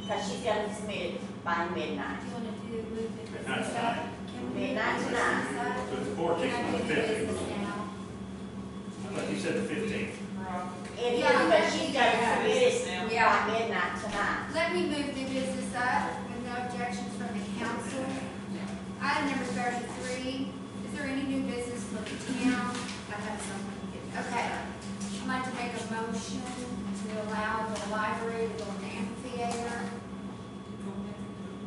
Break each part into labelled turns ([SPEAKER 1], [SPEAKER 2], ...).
[SPEAKER 1] Because she's gonna submit it by midnight.
[SPEAKER 2] Do you wanna do, move it to the
[SPEAKER 3] Midnight
[SPEAKER 2] side? Can we move it
[SPEAKER 1] Midnight
[SPEAKER 2] to the
[SPEAKER 1] tonight.
[SPEAKER 2] side?
[SPEAKER 3] So it's the 14th
[SPEAKER 2] Can I
[SPEAKER 3] and the
[SPEAKER 2] do this
[SPEAKER 3] 15th.
[SPEAKER 2] now?
[SPEAKER 3] I thought you said the fifteenth.
[SPEAKER 1] It is,
[SPEAKER 2] Yeah.
[SPEAKER 1] but she's gonna submit it
[SPEAKER 2] Yeah.
[SPEAKER 1] by midnight tonight.
[SPEAKER 2] Let me move the business up with no objections from the council. Item number thirty-three, is there any new business for the town? I have something. Okay, I'd like to make a motion to allow the library to build an amphitheater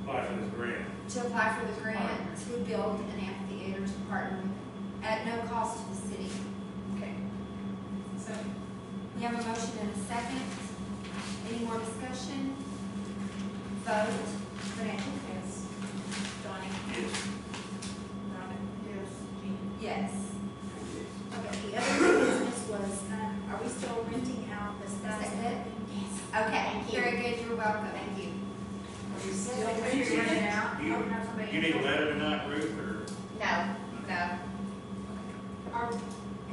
[SPEAKER 3] Apply for this grant.
[SPEAKER 2] to apply for the grant to build an amphitheater to partner with, at no cost to the city.
[SPEAKER 4] Okay. So,
[SPEAKER 2] We have a motion and a second. Any more discussion? Vote. Renee?
[SPEAKER 4] yes.
[SPEAKER 2] Donnie?
[SPEAKER 3] Yes.
[SPEAKER 4] Robin? Yes. Jean?
[SPEAKER 2] Yes.
[SPEAKER 4] Okay, the other business was, um, are we still renting out the stuff?
[SPEAKER 2] Is that it?
[SPEAKER 4] Yes.
[SPEAKER 2] Okay,
[SPEAKER 4] Thank you.
[SPEAKER 2] very good, you're welcome. Thank you.
[SPEAKER 4] Are we still
[SPEAKER 3] Do you-
[SPEAKER 4] renting it out?
[SPEAKER 3] do you-
[SPEAKER 4] Oh, no, somebody-
[SPEAKER 3] You need a letter tonight, Ruth, or?
[SPEAKER 1] No,
[SPEAKER 2] No,
[SPEAKER 4] Are,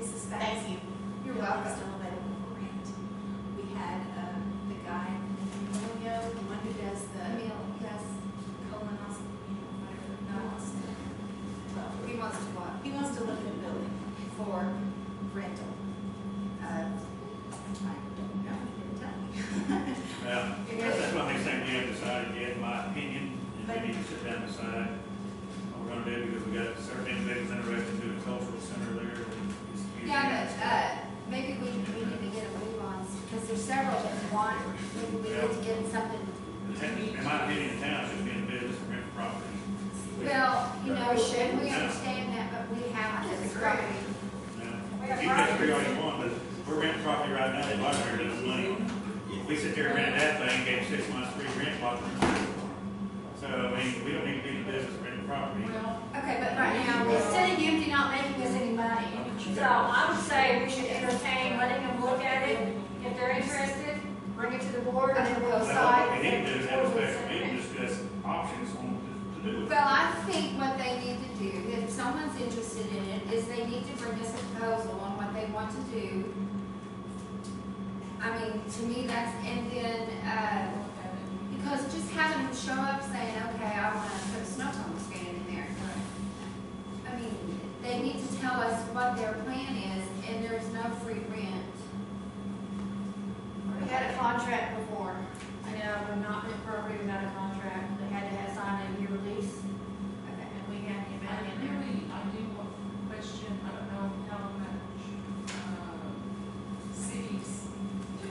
[SPEAKER 4] is this back?
[SPEAKER 1] thank you.
[SPEAKER 2] you're
[SPEAKER 4] It's
[SPEAKER 2] welcome.
[SPEAKER 4] Still available for rent. We had, um, the guy, Emilio, the one who does the
[SPEAKER 2] Emil, yes,
[SPEAKER 4] colonoscopy, whatever, no, it's- well,
[SPEAKER 2] he wants to what?
[SPEAKER 4] He wants to live in a building for rental. Uh, I don't know, he didn't tell me.
[SPEAKER 3] Yeah, that's my next thing we haven't decided yet, in my opinion, and we need to sit down and decide what we're gonna do, because we got certain individuals interested in doing a cultural center there. and it's huge.
[SPEAKER 2] Yeah, but, uh, maybe we, we need to get a move on, because there's several that want, maybe we need to get something.
[SPEAKER 3] The town- In my opinion, the town should be in business and rent property.
[SPEAKER 2] Well, you know, and we understand that, but we have to describe.
[SPEAKER 3] Now, You can agree all you want, but we're renting property right now, they bought it, they're losing money. If We sit there and rent that thing, gave six months free rent, bought it. So, I mean, we don't need to be in the business of renting property.
[SPEAKER 2] Okay, but right now, we're sitting empty, not making us any money.
[SPEAKER 5] So I would say we should entertain, letting them look at it. If they're interested, bring it to the board and then we'll
[SPEAKER 3] But what
[SPEAKER 5] decide.
[SPEAKER 3] we need to do is have a special meeting, discuss options on, to do it.
[SPEAKER 2] Well, I think what they need to do, if someone's interested in it, is they need to bring us a proposal on what they want to do. I mean, to me, that's, and then, uh, because just having them show up saying, okay, I wanna put a snow cone stand in there. I mean, they need to tell us what their plan is, and there's no free rent.
[SPEAKER 5] We had a contract before. I know, we're not in appropriate without a contract. They had to have signed a year release
[SPEAKER 2] Okay.
[SPEAKER 5] and we had the
[SPEAKER 6] I
[SPEAKER 5] amount in there.
[SPEAKER 6] really, I do want to question, I don't know how much, um, cities do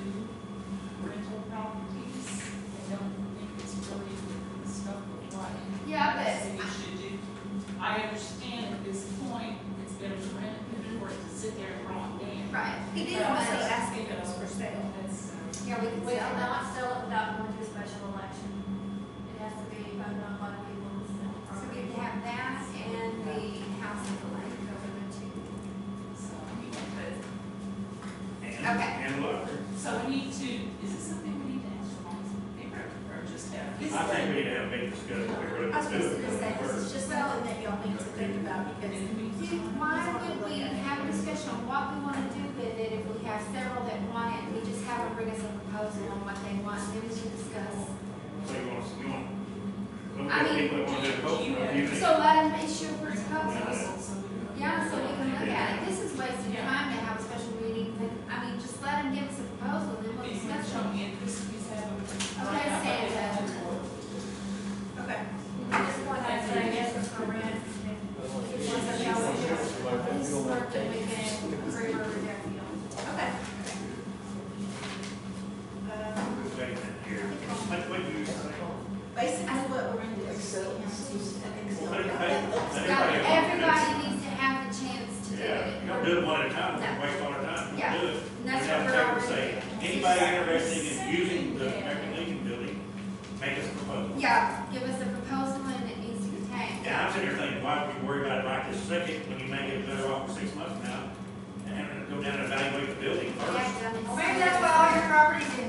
[SPEAKER 6] rental properties. I don't think it's really the stuff of what
[SPEAKER 2] Yeah,
[SPEAKER 6] the
[SPEAKER 2] but
[SPEAKER 6] city should do. I understand at this point, it's better to rent it than for it to sit there and rot down.
[SPEAKER 2] Right,
[SPEAKER 4] He did
[SPEAKER 6] But I'm
[SPEAKER 4] also
[SPEAKER 6] also
[SPEAKER 4] ask if
[SPEAKER 6] asking
[SPEAKER 4] it was for sale.
[SPEAKER 6] That's, uh,
[SPEAKER 2] yeah, we can
[SPEAKER 5] We
[SPEAKER 2] say
[SPEAKER 5] will
[SPEAKER 2] that.
[SPEAKER 5] not sell it without going to a special election. It has to be voted on by the people who sell the
[SPEAKER 2] So we
[SPEAKER 5] property.
[SPEAKER 2] have that and the house of the lake over the two.
[SPEAKER 6] so, you know, but,
[SPEAKER 3] And-
[SPEAKER 2] Okay.
[SPEAKER 3] And look,
[SPEAKER 6] so we need to, is this something we need to actualize in paper or just have?
[SPEAKER 3] I think we need to have a big discussion. We're
[SPEAKER 4] I was
[SPEAKER 3] gonna do
[SPEAKER 4] just gonna say,
[SPEAKER 3] it.
[SPEAKER 4] this is just something that y'all need to think about because.
[SPEAKER 2] Do, why would we have a discussion on what we wanna do with it if we have several that want it? We just have them bring us a proposal on what they want, then we should discuss.
[SPEAKER 3] So you want, you want, look
[SPEAKER 2] I
[SPEAKER 3] at
[SPEAKER 2] mean,
[SPEAKER 3] people that wanna do a cultural, you think-
[SPEAKER 2] So let them issue a proposal.
[SPEAKER 6] So we-
[SPEAKER 2] Yeah, so we can look at it. This is wasting time to have a special meeting, but, I mean, just let them give us a proposal, then we'll
[SPEAKER 6] Anyone
[SPEAKER 2] discuss
[SPEAKER 6] showing
[SPEAKER 2] it.
[SPEAKER 6] interest, please have a.
[SPEAKER 2] Okay, Santa.
[SPEAKER 4] Okay.
[SPEAKER 5] This one, I said, I guess it's for rent. If one says, "No, we don't," This is work that we can agree or reject, you know.
[SPEAKER 4] Okay. Um,
[SPEAKER 3] Who's saying that here? What, what do you say?
[SPEAKER 4] Basically, what we're gonna do is see him, see if he can still
[SPEAKER 3] Let it-
[SPEAKER 4] do
[SPEAKER 3] let
[SPEAKER 4] it.
[SPEAKER 3] it- let
[SPEAKER 2] Yeah,
[SPEAKER 3] everybody else do it.
[SPEAKER 2] Everybody needs to have the chance to do
[SPEAKER 3] Yeah,
[SPEAKER 2] it.
[SPEAKER 3] you don't do it one at a time,
[SPEAKER 2] No.
[SPEAKER 3] you waste all the time, you
[SPEAKER 2] Yeah.
[SPEAKER 3] do it.
[SPEAKER 2] And that's
[SPEAKER 3] We
[SPEAKER 2] what we're
[SPEAKER 3] have to take and
[SPEAKER 2] already
[SPEAKER 3] say,
[SPEAKER 2] doing.
[SPEAKER 3] Anybody interested in using the American Legion building, make us a proposal.
[SPEAKER 2] Yeah, give us a proposal and it needs to be tagged.
[SPEAKER 3] And I'm sitting here thinking, why would you worry about it right this second when you may get better off for six months now? And have to go down and evaluate the building first.
[SPEAKER 2] Yeah, done.
[SPEAKER 5] Well, Maybe that's why all your properties in
[SPEAKER 2] Uh,